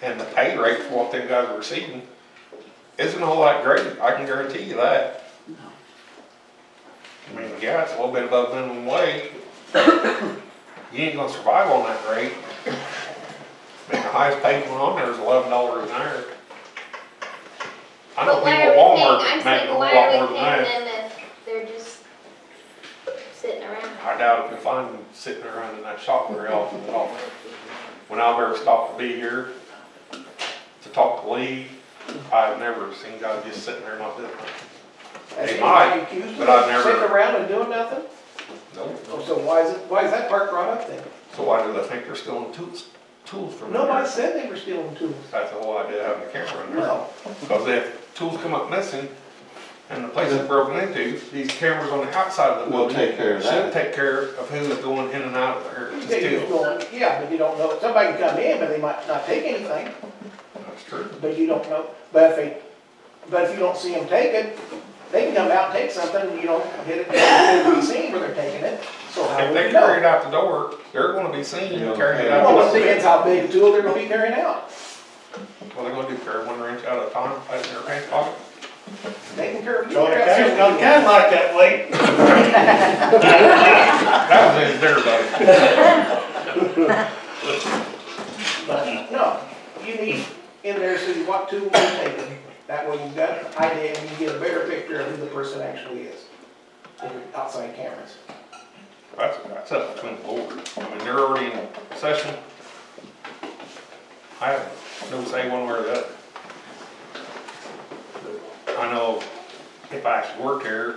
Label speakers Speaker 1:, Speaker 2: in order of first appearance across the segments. Speaker 1: and the pay rate for what them guys are receiving isn't a whole lot greater, I can guarantee you that. I mean, yeah, it's a little bit above minimum wage. You ain't gonna survive on that rate. I mean, the highest paid one on there is eleven dollars an hour. I know people
Speaker 2: But why
Speaker 1: at
Speaker 2: are we
Speaker 1: Walmart
Speaker 2: paying, I'm
Speaker 1: make
Speaker 2: saying,
Speaker 1: a whole
Speaker 2: why
Speaker 1: lot more
Speaker 2: are
Speaker 1: than
Speaker 2: we
Speaker 1: that.
Speaker 2: paying them if they're just sitting around?
Speaker 1: I doubt if you find them sitting around in that shop very often at all. When I've ever stopped to be here to talk to Lee, I've never seen guys just sitting there not doing nothing. They might, but I've never-
Speaker 3: Sitting around and doing nothing?
Speaker 1: Nope.
Speaker 3: Oh, So why is it, why is that part brought up then?
Speaker 1: So why do they think they're stealing tools, tools from there?
Speaker 3: Nobody said they were stealing tools.
Speaker 1: That's the whole idea of having a camera in there.
Speaker 3: No.
Speaker 1: Because if tools come up missing and the place is broken into, these cameras on the outside of the
Speaker 4: We'll
Speaker 1: building.
Speaker 4: take care of that.
Speaker 1: Should take care of who's going in and out of there to
Speaker 3: You think it's
Speaker 1: steal.
Speaker 3: going, yeah, but you don't know, somebody can come in, but they might not take anything,
Speaker 1: That's true.
Speaker 3: but you don't know, but if they, but if you don't see them take it, they can come out and take something, and you don't hit it, they'll be seen where they're taking it, so how
Speaker 1: If
Speaker 3: would
Speaker 1: they
Speaker 3: you
Speaker 1: carry it
Speaker 3: Uh, know?
Speaker 1: out the door, they're gonna be seen
Speaker 4: Yeah.
Speaker 1: carrying it out.
Speaker 3: Well,
Speaker 1: the
Speaker 3: it
Speaker 1: door.
Speaker 3: depends how big a tool they're gonna be carrying out.
Speaker 1: Well, they're gonna do carry one wrench out at a time, place in their pants pocket.
Speaker 3: They can carry.
Speaker 5: Don't catch, don't catch like that, Lee.
Speaker 1: That was in there, buddy.
Speaker 3: But no, you need in there so you what tool we're taking. That way you've got an idea and you get a better picture of who the person actually is. with your Outside cameras.
Speaker 1: That's, that's up between the board. I mean, they're already in session. I have no say one way or the other. I know if I actually work here,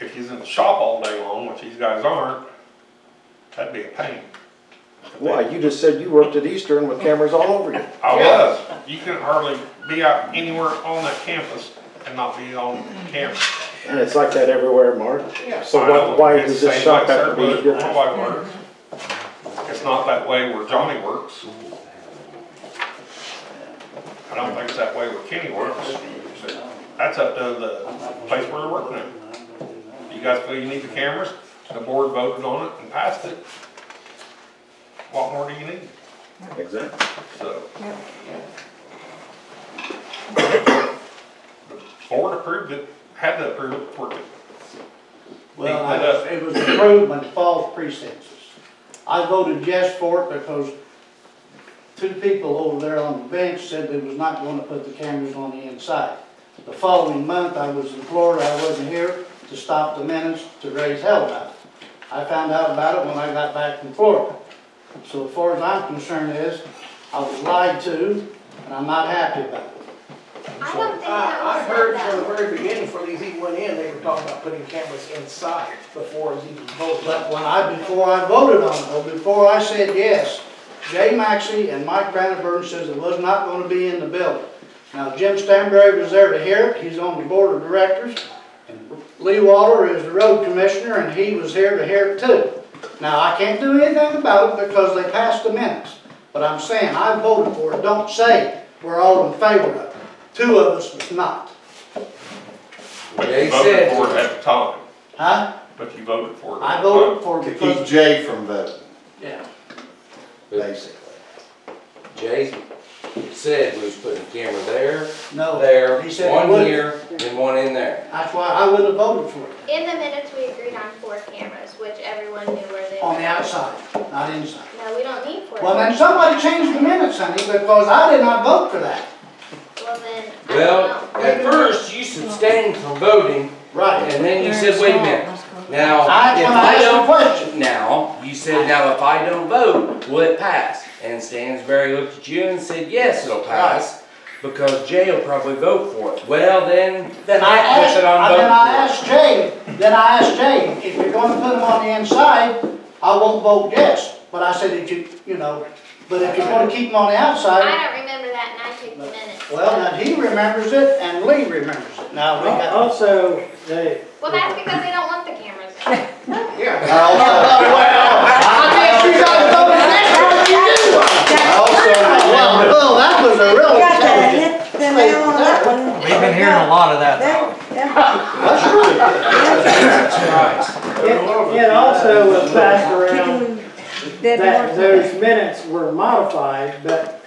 Speaker 1: if he's in the shop all day long, which these guys aren't, that'd be a pain.
Speaker 6: Why, you just said you worked at Eastern with cameras all over you.
Speaker 1: I was, you couldn't hardly be out anywhere on that campus and not be on camera.
Speaker 6: And it's like that everywhere, Mark.
Speaker 3: Yeah.
Speaker 6: So
Speaker 1: I know,
Speaker 6: what, why
Speaker 1: it's
Speaker 6: does
Speaker 1: the
Speaker 6: this
Speaker 1: same
Speaker 6: shop
Speaker 1: way Sarah
Speaker 6: have to be
Speaker 1: works, my
Speaker 6: different?
Speaker 1: wife works. It's not that way where Johnny works. I don't think it's that way where Kenny works. That's up to the place where they're working at. You guys feel you need the cameras, the board voted on it and passed it. What more do you need?
Speaker 6: Exactly.
Speaker 1: So. The board approved it, had to approve it before it
Speaker 5: Well, I- it was approved by the false pretenses. I voted yes for it because two people over there on the bench said they was not gonna put the cameras on the inside. The following month, I was in Florida, I wasn't here to stop the minutes to raise hell about it. I found out about it when I got back from Florida. So as far as I'm concerned is, I was lied to, and I'm not happy about it.
Speaker 2: I don't think that
Speaker 3: uh, I,
Speaker 2: was
Speaker 3: I heard
Speaker 2: said
Speaker 3: from the
Speaker 2: that.
Speaker 3: very beginning, before these even went in, they were talking about putting cameras inside before it was even voted
Speaker 5: But when I, before I voted on it, or before I said yes, Jay Maxey and Mike Brandenburn says it was not gonna be in the building. Now, Jim Stanberry was there to hear it, he's on the board of directors. and Lee Waller is the road commissioner, and he was here to hear it too. Now, I can't do anything about it because they passed the minutes, but I'm saying, I voted for it, don't say we're all in favor of it. Two of us was not,
Speaker 1: But
Speaker 4: They
Speaker 1: you voted
Speaker 4: said-
Speaker 1: for it at the time,
Speaker 5: huh?
Speaker 1: but you voted for it. at
Speaker 5: I
Speaker 1: the
Speaker 5: voted
Speaker 1: time.
Speaker 5: for
Speaker 4: To
Speaker 5: it
Speaker 4: keep
Speaker 5: because,
Speaker 4: Jay from voting,
Speaker 5: yeah,
Speaker 4: basically. Jay said we was putting camera there,
Speaker 5: no.
Speaker 4: there,
Speaker 5: He said he wouldn't.
Speaker 4: one here, and one in there.
Speaker 5: That's why I would have voted for it.
Speaker 2: In the minutes, we agreed on four cameras, which everyone knew where they were.
Speaker 5: On the outside, not inside.
Speaker 2: No, we don't need four.
Speaker 5: Oh, Well, then somebody changed the minutes, honey, because I did not vote for that.
Speaker 2: Well, then, I
Speaker 4: Well,
Speaker 2: don't know.
Speaker 4: at first you abstained from voting, and then you said, wait a minute, now,
Speaker 5: I,
Speaker 4: if
Speaker 5: when
Speaker 4: I
Speaker 5: I asked the
Speaker 4: don't,
Speaker 5: question,
Speaker 4: now, you said, now if I don't vote, will it pass? And Stansberry looked at you and said, yes, it'll pass, because Jay will probably vote for it. Well, then,
Speaker 5: then I asked,
Speaker 4: That's what I'm
Speaker 5: then I
Speaker 4: voting for.
Speaker 5: asked Jay, then I asked Jay, if you're gonna put them on the inside, I won't vote yes. But I said, if you, you know, but if you're gonna keep them on the outside,
Speaker 2: I don't remember that, and I took the minutes.
Speaker 5: well, now he remembers it and Lee remembers it. Now, we got.
Speaker 7: Also, they,
Speaker 2: Well, that's because they don't want the cameras.
Speaker 3: on. Yeah.
Speaker 5: I asked you guys voted yes, how do you do? Well, well, that was a real.
Speaker 7: got to hit them down on that one.
Speaker 8: We've been hearing a lot of that.
Speaker 7: That- yeah. It it also was passed around that those minutes were modified, but